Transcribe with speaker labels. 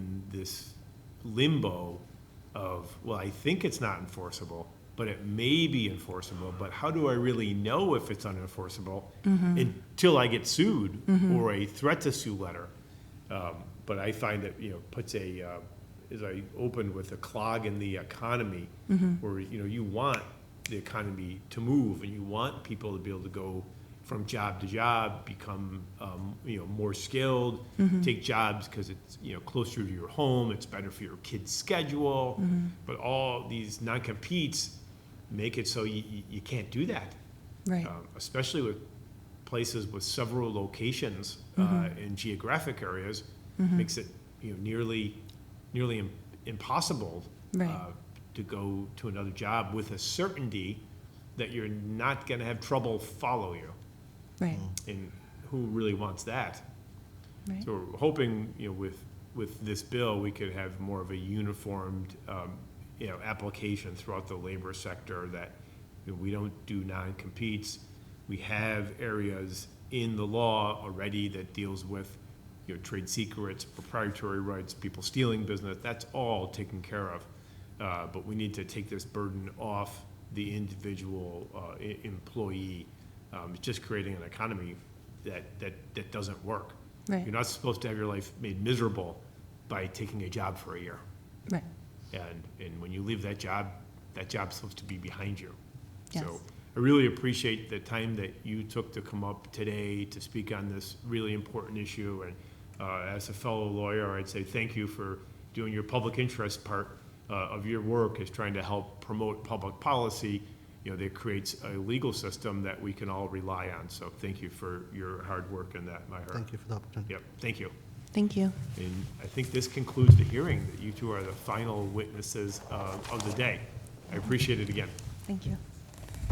Speaker 1: this limbo of, well, I think it's not enforceable, but it may be enforceable, but how do I really know if it's unenforceable until I get sued or a threat to sue letter? Um, But I find that, you know, puts a, uh, as I opened with, a clog in the economy, where, you know, you want the economy to move, and you want people to be able to go from job to job, become, um, you know, more skilled, take jobs because it's, you know, closer to your home, it's better for your kid's schedule. But all these non-competes make it so you, you- you can't do that
Speaker 2: Right.
Speaker 1: um, especially with places with several locations uh,
Speaker 2: Mm-hmm.
Speaker 1: in geographic areas, makes it you know nearly nearly im- impossible
Speaker 2: Right.
Speaker 1: uh, to go to another job with a certainty that you're not going to have trouble follow you.
Speaker 2: Right.
Speaker 1: And who really wants that?
Speaker 2: Right.
Speaker 1: mm. So we're hoping, you know, with, with this bill, we could have more of a uniformed, um, you know, application throughout the labor sector that you know, we don't do non-competes. We have areas in the law already that deals with, you know, trade secrets, proprietary rights, people stealing business, that's all taken care of. Uh, but we need to take this burden off the individual, uh, e- employee. Um, it's just creating an economy that, that, that doesn't work.
Speaker 2: Right.
Speaker 1: You're not supposed to have your life made miserable by taking a job for a year.
Speaker 2: Right.
Speaker 1: And, and when you leave that job, that job's supposed to be behind you. So
Speaker 2: Yes.
Speaker 1: I really appreciate the time that you took to come up today to speak on this really important issue. And uh, as a fellow lawyer, I'd say thank you for doing your public interest part uh, of your work is trying to help promote public policy, you know, that creates a legal system that we can all rely on. So thank you for your hard work in that, Maher.
Speaker 3: Thank you for the opportunity.
Speaker 1: Yep, thank you.
Speaker 2: Thank you.
Speaker 1: And I think this concludes the hearing, that you two are the final witnesses uh, of the day. I appreciate it again.
Speaker 2: Thank you.